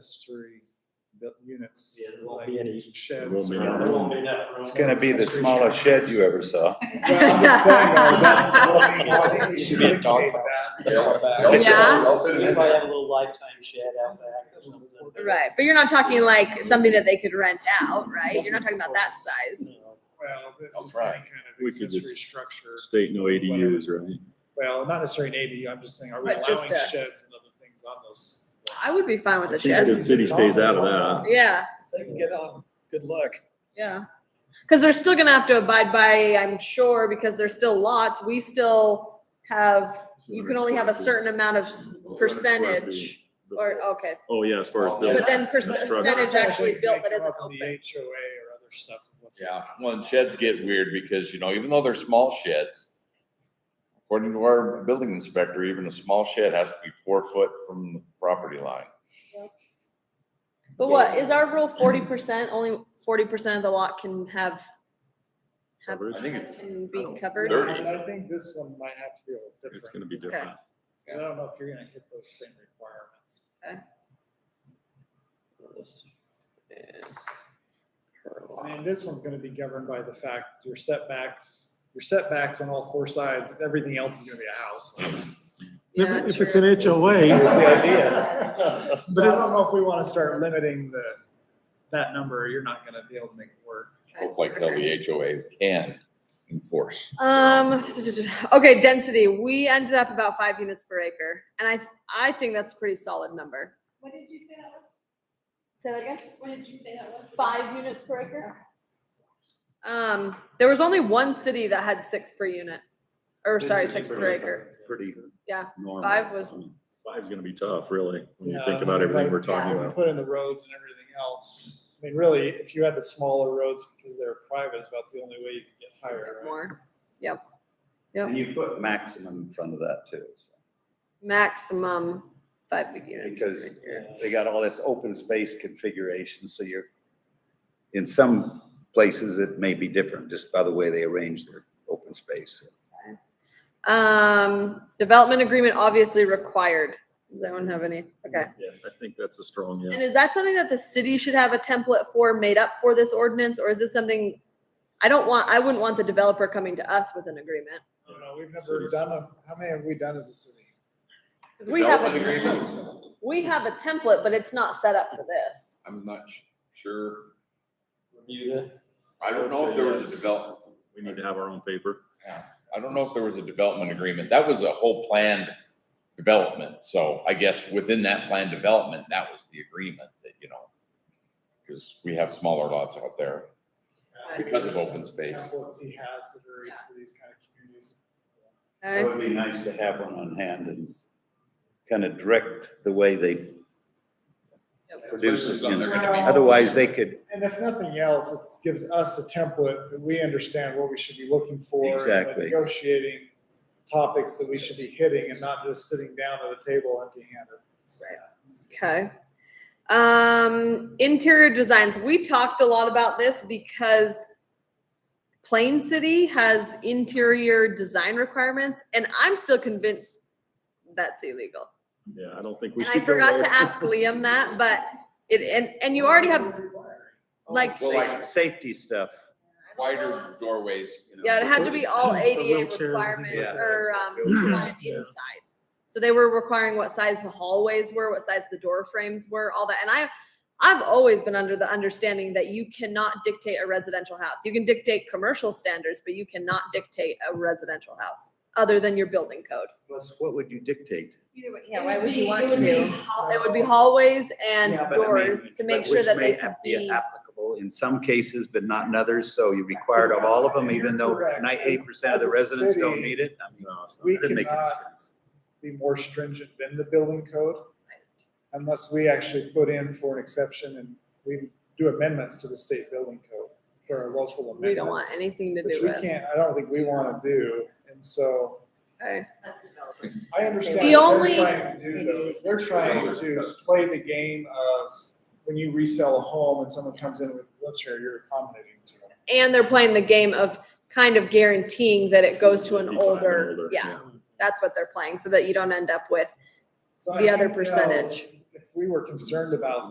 accessory built units. Yeah, there won't like be any- Sheds. won't be or- none. There won't be enough room. It's gonna be the smallest shed you ever saw. Well, I'm just saying, though, that's- I think we Should be a should dog indicate house. that. Yeah. We might have a little lifetime shed out back or something. Right, but you're not talking like something that they could rent out, right? You're not talking about that size. You know, Well, but I'll just try. any kind of We could accessory just- structure. State no ADUs, right? Well, not necessarily an ADU, I'm just saying, are we allowing But just a- sheds and other things on those? I would be fine with I a think the shed. city stays out of that. Yeah, They can get on, good luck. yeah. Cause they're still gonna have to abide by, I'm sure, because there's still lots, we still have, you can only have a certain amount of s- percentage or, okay. Oh, yeah, as far as building. But then percentage actually built that isn't The open. HOA or other stuff. what's going Yeah, on. well, and sheds get weird because, you know, even though they're small sheds, according to our building inspector, even a small shed has to be four foot from the property line. But what, is our rule forty percent, only forty percent of the lot can have, have, Coverage? I think it's- can be But covered? Thirty. I think this one might have to be a little It's gonna different. be different. I don't know if you're gonna hit those same requirements. this is her lot. I mean, this one's gonna be governed by the fact your setbacks, your setbacks on all four sides, everything else is gonna be a house. almost. Yeah, If if it's sure. an That was HOA, the idea. So I but don't know if we wanna start limiting the, that number, you're not gonna be able to make it work. Look like Okay. WHOA can enforce. Um, okay, density, we ended up about five units per acre, and I, I think that's a pretty solid number. What did you say that was? Say that again? What did you say that was? Five units per acre? Um, there was only one city that had six per unit, or sorry, six per acre. It's pretty Yeah, normal. five was- Five's gonna be tough, really, when you Yeah, think I about mean, everything like, we're talking when you about. Put in the roads and everything else. I mean, really, if you had the smaller roads because they're private, it's about the only way you can get higher, right? More, And you put maximum in front of that too. so. maximum five big units. per Because- acre. They got all this open space configuration, so you're, in some places it may be different just by the way they arrange their open space. Um, development agreement obviously required. Does anyone have any? Okay. Yeah, I think that's a strong And yes. is that something that the city should have a template for made up for this ordinance, or is this something? I don't want, I wouldn't want the developer coming to us with an agreement, I don't know, we've never Cities. done, a- how many have we done as a city? because we have Development a, agreements, we have a template, but it's not set up for this. I'm not sh- sure. Bermuda. I don't know if there was a development, We need to have our own paper. I don't know if there was a development agreement. That was a whole planned development. So I guess within that planned development, that was the agreement that, you know, because we have smaller lots out there. Uh, Because of open space. That's What he has that are for these kind of communities. It Okay. would be nice to have one on hand and kind of direct the way they produce it. you know. Otherwise, they could, And if nothing else, it gives us a template that we understand what we should be looking for. and, like, Exactly. Negotiating topics that we should be hitting and not just sitting down at a table empty handed. Okay. Um, interior designs. We talked a lot about this because Plain City has interior design requirements, and I'm still convinced that's illegal. Yeah, I don't think we And should. I go forgot there. to ask Liam that, but it, and, and you already have, like, Well, like- safety stuff. Wider doorways. you know. yeah, it had to be all For ADA wheelchair, requirement yeah. or, um, Yeah. compliant inside. So they were requiring what size the hallways were, what size the door frames were, all that. And I, I've always been under the understanding that you cannot dictate a residential house. You can dictate commercial standards, but you cannot dictate a residential house other than your building code. Plus, what would you dictate? Yeah, why would you want to? It would be hallways and Yeah, but I mean, doors to make but sure which that they may could ap- be. Applicable in some cases, but not in others, so you're required of all of them, even though Correct. ninety-eight percent of the As a residents don't city, need it. I mean, No, it's not. We that didn't make any cannot sense. be more stringent than the building code unless we actually put in for an exception and we do amendments to the state building code for our local amendments. We don't want anything to Which do we with. can't, I don't think we want to do. And so Okay. I understand The what only- they're trying to do though, is they're trying to play the game of when you resell a home and someone comes in with a wheelchair, you're accommodating to them. And they're playing the game of kind of guaranteeing that it goes to an 55 and older, yeah, that's what they're playing, so that you don't end up with So I The other think, you know, percentage. If we were concerned about